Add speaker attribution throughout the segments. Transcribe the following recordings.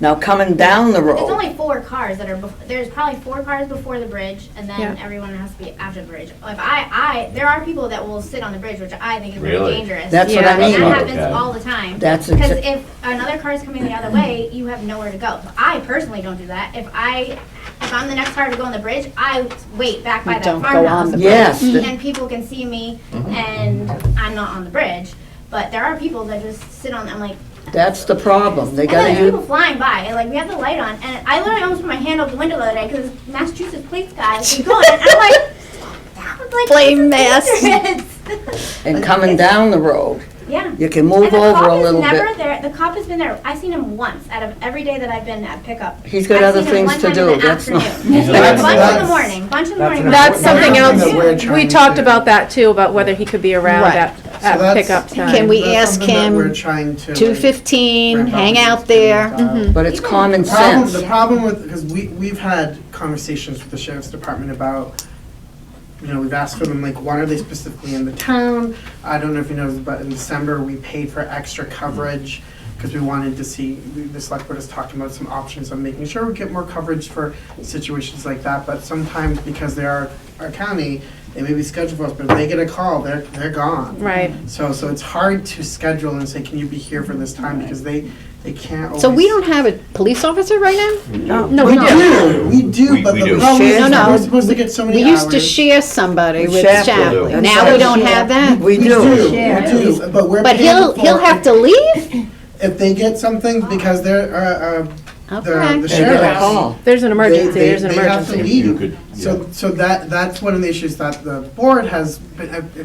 Speaker 1: Now, coming down the
Speaker 2: It's
Speaker 1: road,
Speaker 2: only four cars that are, bef- there's probably four cars before the bridge, and
Speaker 3: Yeah.
Speaker 2: then everyone has to be after the bridge. If I, I, there are people that will sit on the bridge, which I think is really
Speaker 4: Really?
Speaker 2: dangerous.
Speaker 1: that's what
Speaker 3: Yeah.
Speaker 1: I
Speaker 2: And
Speaker 1: mean.
Speaker 2: that
Speaker 4: That's not
Speaker 2: happens
Speaker 4: okay.
Speaker 2: all the time.
Speaker 1: That's
Speaker 2: Because
Speaker 1: exa-
Speaker 2: if another car's coming the other way, you have nowhere to go. So I personally don't do that. If I, if I'm the next car to go on the bridge, I wait back by
Speaker 3: You
Speaker 2: that
Speaker 3: don't go on
Speaker 2: farmhouse.
Speaker 3: the
Speaker 1: Yes, th-
Speaker 2: And people can see me, and I'm not on the bridge. But there are people that just sit on, I'm like,
Speaker 1: that's the problem. They
Speaker 2: and then
Speaker 1: gotta
Speaker 2: there's people
Speaker 1: use,
Speaker 2: flying by, and like we have the light on, and I literally almost put my hand over the window the other day because Massachusetts police guy was going, and I'm like, that was like
Speaker 3: Blame
Speaker 2: this is
Speaker 3: Mass.
Speaker 2: dangerous.
Speaker 1: and coming down the road,
Speaker 2: yeah.
Speaker 1: you can
Speaker 2: And
Speaker 1: move
Speaker 2: the
Speaker 1: over
Speaker 2: cop
Speaker 1: a
Speaker 2: is
Speaker 1: little
Speaker 2: never
Speaker 1: bit.
Speaker 2: there. The cop has been there. I've seen him once out of every day that I've been at pickup.
Speaker 1: He's got
Speaker 2: I've
Speaker 1: other
Speaker 2: seen him
Speaker 1: things
Speaker 2: one
Speaker 1: to
Speaker 2: time in
Speaker 1: do,
Speaker 2: the
Speaker 1: that's not.
Speaker 2: afternoon.
Speaker 5: That's-
Speaker 2: bunch in the
Speaker 5: that's-
Speaker 2: morning. Bunch in the
Speaker 5: that's
Speaker 2: morning.
Speaker 5: an
Speaker 3: That's something
Speaker 5: important thing that we're
Speaker 3: else.
Speaker 5: trying
Speaker 6: We
Speaker 5: to
Speaker 6: talked
Speaker 5: do.
Speaker 6: about that too, about whether he could be around
Speaker 3: Right.
Speaker 6: at,
Speaker 5: So
Speaker 6: at
Speaker 5: that's-
Speaker 6: pickup time.
Speaker 3: Can we
Speaker 5: That's
Speaker 3: ask
Speaker 5: something that
Speaker 3: him
Speaker 5: We're trying to.
Speaker 3: Two fifteen,
Speaker 5: ramp up
Speaker 3: hang
Speaker 5: and
Speaker 3: out
Speaker 5: just
Speaker 3: there. Mm-hmm.
Speaker 5: kind of, uh,
Speaker 1: But it's common
Speaker 5: The problem,
Speaker 1: sense.
Speaker 5: the problem with, because we, we've had conversations with the sheriff's department about, you know, we've asked for them, like, why are they specifically in the town? I don't know if you know, but in December, we paid for extra coverage because we wanted to see, we- the select board is talking about some options on making sure we get more coverage for situations like that. But sometimes because they are our county, they may be scheduled for us, but if they get a call, they're, they're gone.
Speaker 6: Right.
Speaker 5: So, so it's hard to schedule and say, can you be here for this time? Because they, they can't always.
Speaker 3: So we don't have a police officer right now? No,
Speaker 5: We
Speaker 3: we don't.
Speaker 5: do, we do,
Speaker 4: We-
Speaker 5: but
Speaker 4: we
Speaker 5: the
Speaker 4: do.
Speaker 5: problem is,
Speaker 1: No,
Speaker 5: that
Speaker 3: no.
Speaker 5: we're supposed to get so many
Speaker 3: We
Speaker 5: hours.
Speaker 3: used to share somebody
Speaker 1: We
Speaker 3: with
Speaker 1: share.
Speaker 3: Shapley.
Speaker 4: We
Speaker 3: Now we don't have that?
Speaker 1: We
Speaker 5: We do,
Speaker 1: do.
Speaker 5: we do, but we're
Speaker 3: But he'll,
Speaker 5: paying
Speaker 3: he'll have
Speaker 5: for,
Speaker 3: to leave?
Speaker 5: if they get something, because they're, uh, uh, the,
Speaker 1: They
Speaker 3: Okay.
Speaker 5: the
Speaker 1: get a
Speaker 5: sheriff.
Speaker 1: call.
Speaker 6: There's an emergency,
Speaker 5: they-
Speaker 6: there's an
Speaker 5: they have to
Speaker 6: emergency.
Speaker 5: leave.
Speaker 4: You could, yeah.
Speaker 5: So, so that, that's one of the issues that the board has, been- uh, uh,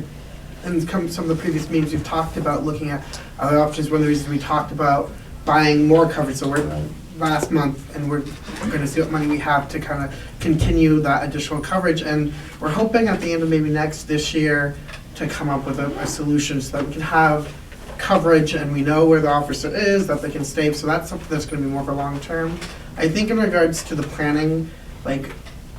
Speaker 5: and come, some of the previous meetings we've talked about, looking at other options, one of the reasons we talked about buying more coverage, so we're, last month, and we're gonna see what money we have to kind of continue that additional coverage, and we're hoping at the end of maybe next, this year, to come up with a, a solution so that we can have coverage and we know where the officer is, that they can stay, so that's something that's gonna be more of a long term. I think in regards to the planning, like,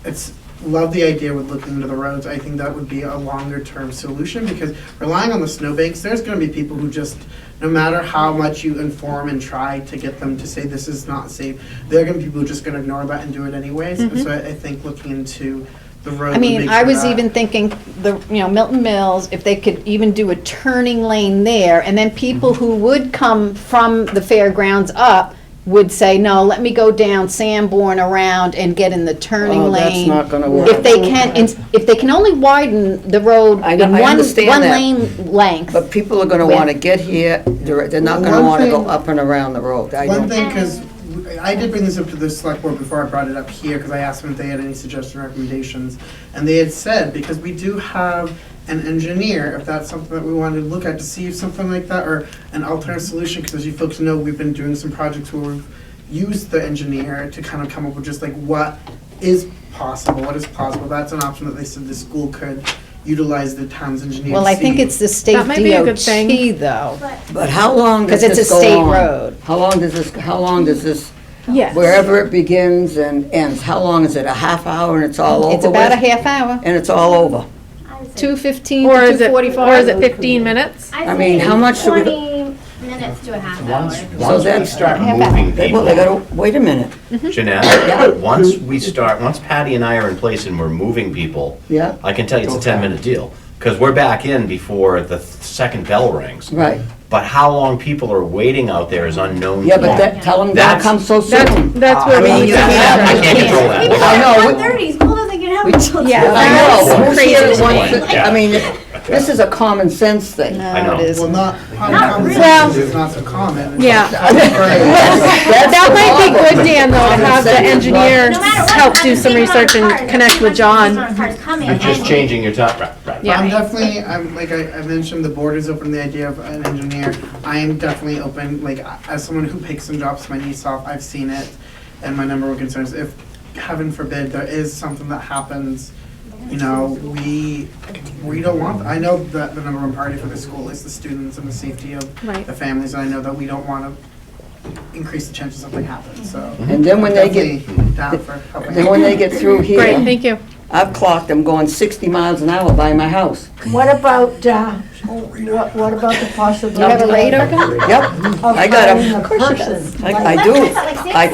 Speaker 5: it's, love the idea with looking into the roads, I think that would be a longer term solution, because relying on the snowbanks, there's gonna be people who just, no matter how much you inform and try to get them to say this is not safe, they're gonna be people who just gonna ignore that and do it anyways, And so I, I think looking into the roads.
Speaker 3: Mm-hmm. I
Speaker 5: would make
Speaker 3: mean, I
Speaker 5: sure
Speaker 3: was
Speaker 5: that-
Speaker 3: even thinking, the, you know, Milton Mills, if they could even do a turning lane there, and then people
Speaker 1: Mm-hmm.
Speaker 3: who would come from the fairgrounds up would say, no, let me go down Sanborn around and get in the turning
Speaker 1: Oh,
Speaker 3: lane.
Speaker 1: that's not gonna work.
Speaker 3: If they can, ins- if they can only widen the road
Speaker 1: I
Speaker 3: in
Speaker 1: know-
Speaker 3: one,
Speaker 1: I
Speaker 3: one
Speaker 1: understand that.
Speaker 3: lane length.
Speaker 1: But people are gonna wanna get here, they're, they're not gonna
Speaker 5: One
Speaker 1: wanna go
Speaker 5: thing-
Speaker 1: up and around the road. I
Speaker 5: One
Speaker 1: don't-
Speaker 5: thing, because I did bring this up to the select board before I brought it up here, because I asked them if they had any suggestions, or recommendations. And they had said, because we do have an engineer, if that's something that we wanted to look at, to see if something like that, or an alternate solution, because as you folks know, we've been doing some projects where we've used the engineer to kind of come up with just like what is possible, what is plausible. That's an option that they said the school could utilize the town's engineer to
Speaker 3: Well, I think
Speaker 5: see.
Speaker 3: it's the state
Speaker 6: That might be a good
Speaker 3: DOT,
Speaker 6: thing.
Speaker 3: though.
Speaker 1: But how long does
Speaker 3: 'Cause it's
Speaker 1: this
Speaker 3: a
Speaker 1: go on?
Speaker 3: state road.
Speaker 1: How long does this, how long does this,
Speaker 6: Yes.
Speaker 1: wherever it begins and ends, how long is it? A half hour and it's all over
Speaker 3: It's about a
Speaker 1: with?
Speaker 3: half hour,
Speaker 1: And it's all over?
Speaker 2: I would say-
Speaker 3: two fifteen
Speaker 6: Or
Speaker 3: to
Speaker 6: is
Speaker 3: two
Speaker 6: it,
Speaker 3: forty-five.
Speaker 6: or is it fifteen minutes?
Speaker 2: I'd
Speaker 1: I mean,
Speaker 2: say
Speaker 1: how much do we-
Speaker 2: Twenty minutes to a half hour.
Speaker 4: Once we
Speaker 1: that's-
Speaker 4: start
Speaker 3: Have that.
Speaker 4: moving
Speaker 1: They- Well, they
Speaker 4: people,
Speaker 1: gotta, wait a minute, Yeah.
Speaker 4: Janelle, once we start, once Patty and I are in place and we're moving people,
Speaker 1: yeah,
Speaker 4: I can tell you it's a ten-minute deal, because we're back in before the th- second bell rings.
Speaker 1: right.
Speaker 4: But how long people are waiting out there is unknown.
Speaker 1: Yeah,
Speaker 4: to
Speaker 1: but
Speaker 4: me.
Speaker 1: that, tell them don't
Speaker 4: That's-
Speaker 1: come so
Speaker 6: That's,
Speaker 1: soon.
Speaker 6: that's
Speaker 4: I
Speaker 6: where
Speaker 1: mean,
Speaker 6: we.
Speaker 1: you
Speaker 4: can't- I
Speaker 1: can't-
Speaker 4: can't control that.
Speaker 2: People
Speaker 1: I
Speaker 2: at
Speaker 1: know.
Speaker 2: one thirty, school doesn't get out until.
Speaker 6: Yeah.
Speaker 1: I
Speaker 6: That's
Speaker 1: know, who's
Speaker 6: crazy.
Speaker 1: here at once-
Speaker 4: Yeah.
Speaker 1: I mean, this is a common sense thing.
Speaker 3: No,
Speaker 4: I know.
Speaker 3: it isn't.
Speaker 5: Well, not,
Speaker 2: really.
Speaker 5: well, it's not so common.
Speaker 6: Yeah.
Speaker 1: That's
Speaker 6: That
Speaker 1: the
Speaker 6: might be
Speaker 1: problem.
Speaker 6: good, Dan, though, to have the engineer
Speaker 2: No matter what,
Speaker 6: help do
Speaker 2: I'm
Speaker 6: some
Speaker 2: thinking about
Speaker 6: research
Speaker 2: cars.
Speaker 6: and connect
Speaker 2: Everyone's
Speaker 6: with John.
Speaker 2: thinking about cars coming
Speaker 4: You're just
Speaker 2: and-
Speaker 4: changing your time, right, right.
Speaker 6: Yeah.
Speaker 5: I'm definitely, I'm, like I, I mentioned, the board is open to the idea of an engineer. I am definitely open, like, I- as someone who picks and drops my niece off, I've seen it. And my number one concern is if, heaven forbid, there is something that happens, you know, we, we don't want, I know that the number one priority for the school is the students and the safety of
Speaker 6: Right.
Speaker 5: the families. And I know that we don't want to increase the chances something happens, so.
Speaker 1: And then when they get,
Speaker 5: Definitely down for helping.
Speaker 1: then when they get through here.
Speaker 6: Great, thank you.
Speaker 1: I've clocked them going 60 miles an hour by my house.
Speaker 7: What about, uh, what what about the possibility?
Speaker 3: Do you have a radar gun?
Speaker 1: Yep, I got
Speaker 7: Of
Speaker 1: them.
Speaker 7: hiring a person?
Speaker 1: I I do.
Speaker 2: Like six
Speaker 1: I